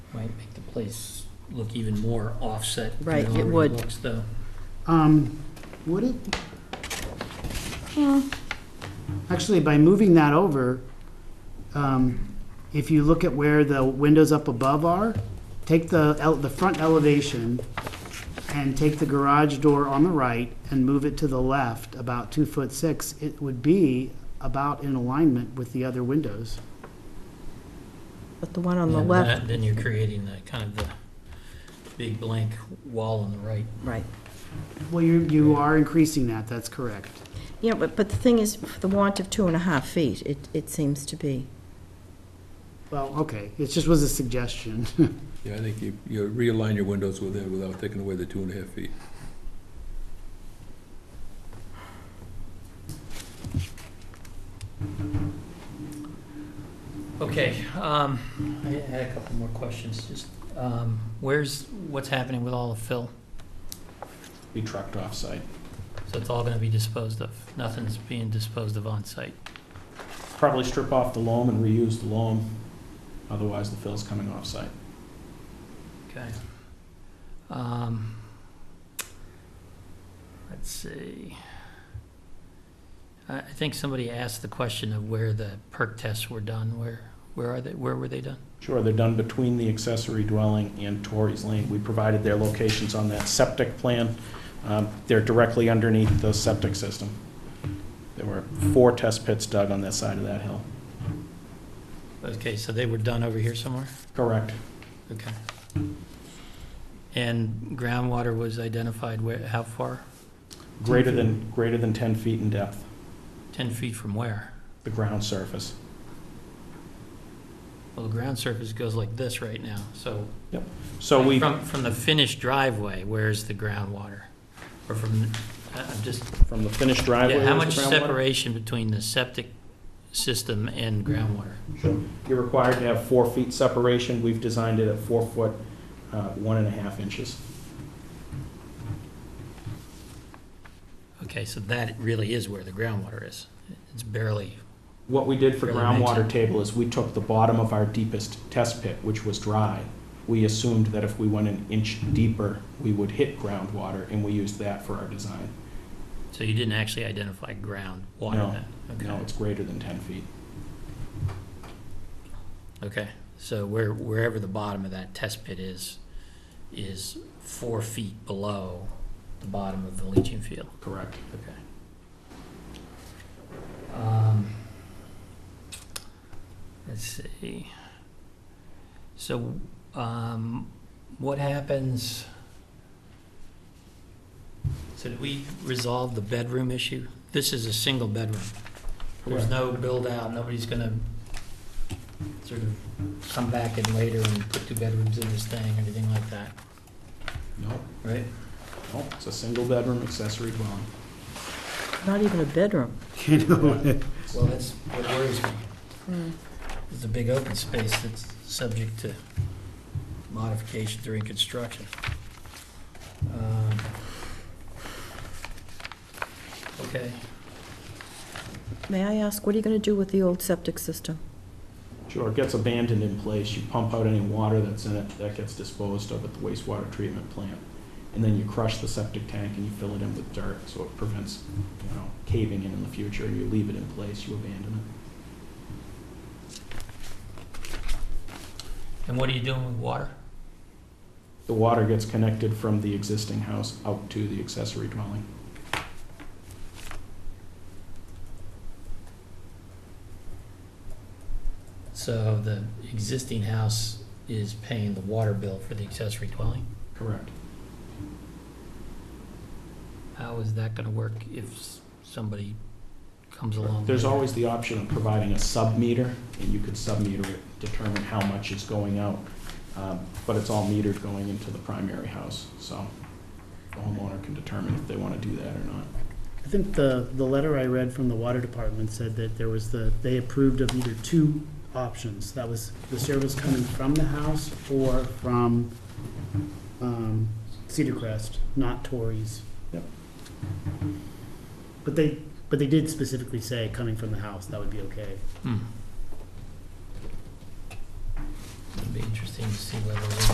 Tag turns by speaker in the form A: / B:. A: might make the place look even more offset. than
B: Right, it
A: already
B: would.
A: Looks though.
C: Um, would it? Actually, by moving that over, um, if you look at where the windows up above are, take the, el- the front elevation and take the garage door on the right and move it to the left about two foot six, it would be about in alignment with the other windows.
B: But the one on the
A: And
B: left,
A: that- Then you're creating the, kind of the big blank wall on the right.
B: right.
C: Well, you, you are increasing that, that's correct.
B: Yeah, but, but the thing is, the want of two and a half feet, it, it seems to be.
C: Well, okay, it just was a suggestion.
D: Yeah, I think you, you realign your windows with it without taking away the two and a half feet.
A: Okay, um, I had a couple more questions, just, um, where's, what's happening with all the fill?
E: be trucked off-site.
A: So it's all gonna be disposed of, nothing's being disposed of on site.
E: Probably strip off the loam and reuse the loam, otherwise the fill's coming off-site.
A: Okay. Um, let's see. I, I think somebody asked the question of where the perk tests were done. Where, where are they, where were they done?
E: Sure, they're done between the accessory dwelling and Torrey's Lane. We provided their locations on that septic plan. Um, They're directly underneath the septic system. There were four test pits dug on that side of that hill.
A: Okay, so they were done over here somewhere?
E: Correct.
A: Okay. And groundwater was identified where, how far?
E: Greater than, greater than 10 feet in depth,
A: Ten feet from where?
E: the ground surface.
A: Well, the ground surface goes like this right now, so.
E: So we,
A: From, from the finished driveway, where's the groundwater? Or from, the- I- I'm just
E: from the finished driveway.
A: Yeah, how
E: is
A: much
E: the groundwater?
A: separation between the septic system and groundwater?
E: You're required to have four feet separation. We've designed it at four foot, uh, one and a half inches.
A: Okay, so that really is where the groundwater is. It's barely,
E: What we did for
A: Really makes
E: groundwater table is we took the bottom of our deepest test pit, which was dry. We assumed that if we went an inch deeper, we would hit groundwater, and we used that for our design.
A: so you didn't actually identify groundwater
E: No,
A: then?
E: No, it's greater than 10 feet.
A: Okay, okay. So where, wherever the bottom of that test pit is, is four feet below the bottom of the leaching field?
E: Correct.
A: Okay. Um, Let's see. So, um, what happens? So did we resolve the bedroom issue? This is a single bedroom. There's no build-out, nobody's gonna sort of come back in later and put two bedrooms in this thing, anything like that,
E: No,
A: right?
E: no, it's a single-bedroom accessory dwelling.
B: Not even a bedroom.
C: You know,
A: Well, that's what worries me. It's a big open space that's subject to modification during construction. Um, Okay,
B: May I ask, what are you going to do with the old septic system?
E: Sure, it gets abandoned in place, you pump out any water that's in it, that gets disposed of at the wastewater treatment plant. And then you crush the septic tank and you fill it in with dirt, so it prevents, you know, caving in in the future, you leave it in place, you abandon it.
A: and what are you doing with water?
E: The water gets connected from the existing house out to the accessory dwelling.
A: So the existing house is paying the water bill for the accessory dwelling?
E: Correct.
A: How is that gonna work if s- somebody comes along?
E: There's
A: later?
E: always the option of providing a sub-meter, and you could sub-meter it, determine how much is going out. Um, But it's all metered going into the primary house, so the homeowner can determine if they want to do that or not.
C: I think the, the letter I read from the water department said that there was the, they approved of either two options. That was the service coming from the house or from um, Cedar Crest, not Torrey's.
E: Yep.
C: But they, but they did specifically say coming from the house, that would be okay.
A: Hmm. It'd be interesting to see whether.